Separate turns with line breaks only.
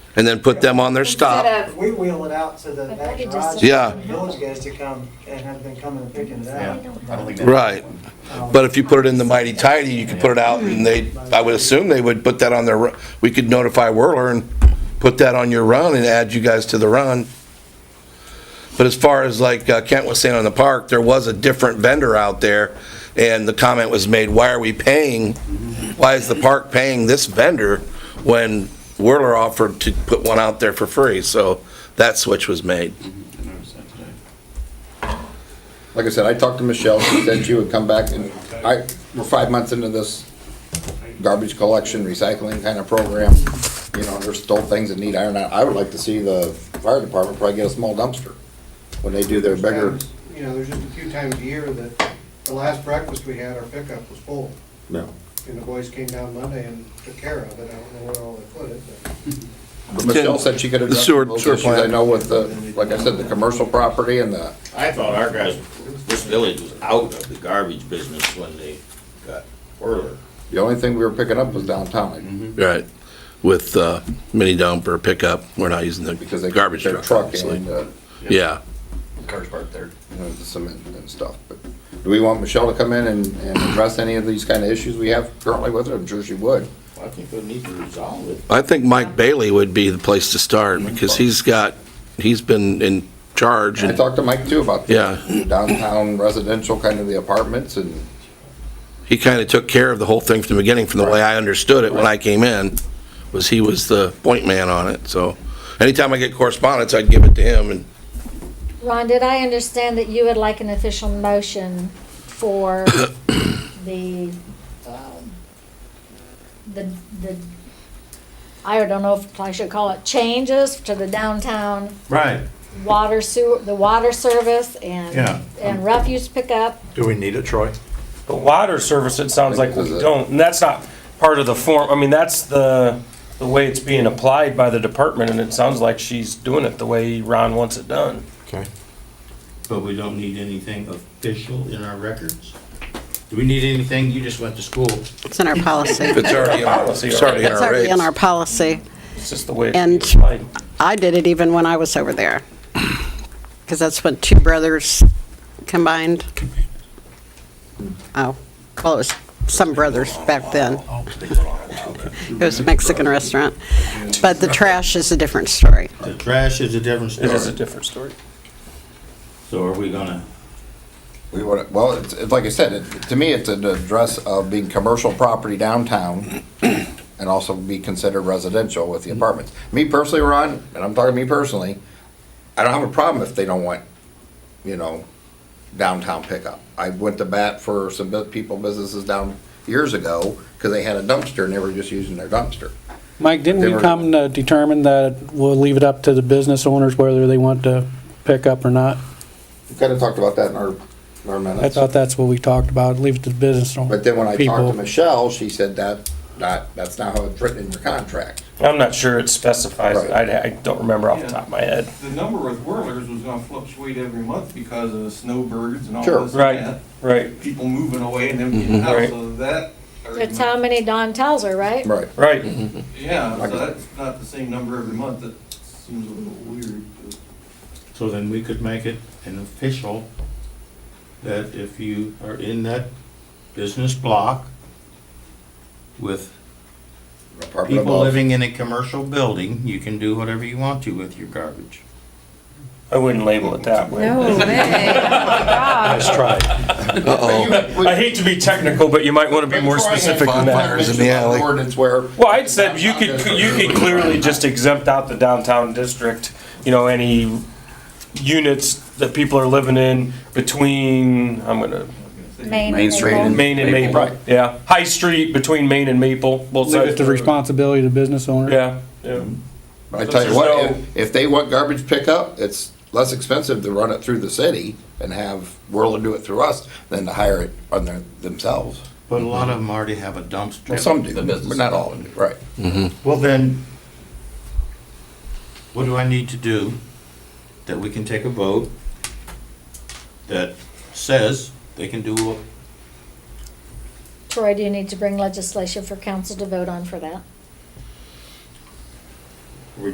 and then put them on their stop.
Instead
If we wheel it out to the
Uh, I thought
back
you just
garage.
said-
Yeah.
Village guys to come and have them come and picking it
Yeah,
up.
I don't think that-
Right. But if you put it in the mighty tidy, you could put it out and they, I would assume they would put that on their, ru- we could notify Whirler and put that on your run and add you guys to the run. But as far as like uh, Kent was saying on the park, there was a different vendor out there and the comment was made, why are we paying? Why is the park paying this vendor when Whirler offered to put one out there for free? So that switch was made.
I noticed that today.
Like I said, I talked to Michelle, she said she would come back and I, we're five months into this garbage collection, recycling kind of program. You know, there's still things that need iron out. I would like to see the fire department probably get a small dumpster when they do their bigger.
Times, You know, there's just a few times a year that, the last breakfast we had, our pickup was full,
No.
and the boys came down Monday and took care of it, I don't know where all they put it, but.
But Michelle said she could
The
address
sewer-
those
sewer
issues. I
plant.
know with the, like I said, the commercial property and the,
I thought our guys, this village was out of the garbage business when they got Whirler.
the only thing we were picking up was downtown.
Right, with uh, mini dump or pickup, we're not using
Because they.
the garbage
their
truck,
and,
obviously.
uh,
Yeah,
Cars parked there.
you know, the cement and stuff. But do we want Michelle to come in and, and address any of these kind of issues we have currently with her? I'm sure she would.
I think they need to resolve it.
I think Mike Bailey would be the place to start, because he's got, he's been in charge,
I
and
talked to Mike too about
Yeah.
the downtown residential kind of the apartments and
he kind of took care of the whole thing from the beginning, from the way I understood it when I came in, was he was the point man on it, so anytime I get correspondence, I'd give it to him, and
Ron, did I understand that you would like an official motion for the, um, the, the, I don't know if I should call it changes to the downtown
Right.
water sewer, the water service
Yeah. um,
and, and refuse pickup?
Do we need it, Troy?
The water service, it sounds like we
Because, uh,
don't, and that's not part of the form, I mean, that's the, the way it's being applied by the department, and it sounds like she's doing it the way Ron wants it done.
Okay.
But we don't need anything official in our records? Do we need anything? You just went to school.
It's in our policy.
if it's already in our, it's already in
It's
our
already in our
rates.
policy.
It's just the way it's being
And-
applied.
I did it even when I was over there, because that's when two brothers combined. Oh, well, it was some brothers back then. It was a Mexican restaurant. But the trash is a different story.
The trash is a different
It is a
story.
different story.
So are we gonna,
we would, well, it's, it's like I said, it, to me, it's an address of being commercial property downtown and also be considered residential with the apartments. Me personally, Ron, and I'm talking to me personally, I don't have a problem if they don't want, you know, downtown pickup. I went to bat for some bu- people, businesses down years ago, because they had a dumpster and they were just using their dumpster.
Mike, didn't
They
we
were-
come to determine that we'll leave it up to the business owners whether they want to pick up or not?
We Kind of talked about that in our, in our minutes.
I thought that's what we talked about, leave it to the business owners.
But then when I talked to Michelle, she said that, that, that's not how it's written in your contract.
I'm not sure it specifies,
Right.
I, I don't remember off the top of my head.
The number with whirlers was gonna fluctuate every month because of snowbirds and all
Sure. Mhm.
this and
Right,
that.
right,
People moving away and them getting
Right.
out, so that.
That's how many Don tells her, right?
Right. Mm-hmm.
right.
Yeah,
Like-
so that's not the same number every month, that seems a little weird. but-
so then we could make it an official that if you are in that business block with
Apartment
people
above.
living in a commercial building, you can do whatever you want to with your garbage.
I wouldn't label it that way.
No
Nice try.
Uh-oh,
I hate to be technical, but you might want to be more specific than that.
bonfires in the alley.
Ordinance where.
Well, I'd said you could, you could clearly just exempt out the downtown district, you know, any units that people are living in between, I'm gonna,
Main
Main Street
April.
and-
Main and
Maple.
Maple, yeah. High Street between Main and Maple, both
Leave
sides.
it to responsibility of the business owner.
Yeah, yeah.
I tell you
There's
what,
no-
if, if they want garbage pickup, it's less expensive to run it through the city and have Whirler do it through us than to hire it on their, themselves.
But a lot of them already have a dumpster.
Mm-hmm. Well, some do,
the
but
business.
not all do, right.
Well, then, what do I need to do that we can take a vote that says they can do what?
Troy, do you need to bring legislation for council to vote on for that?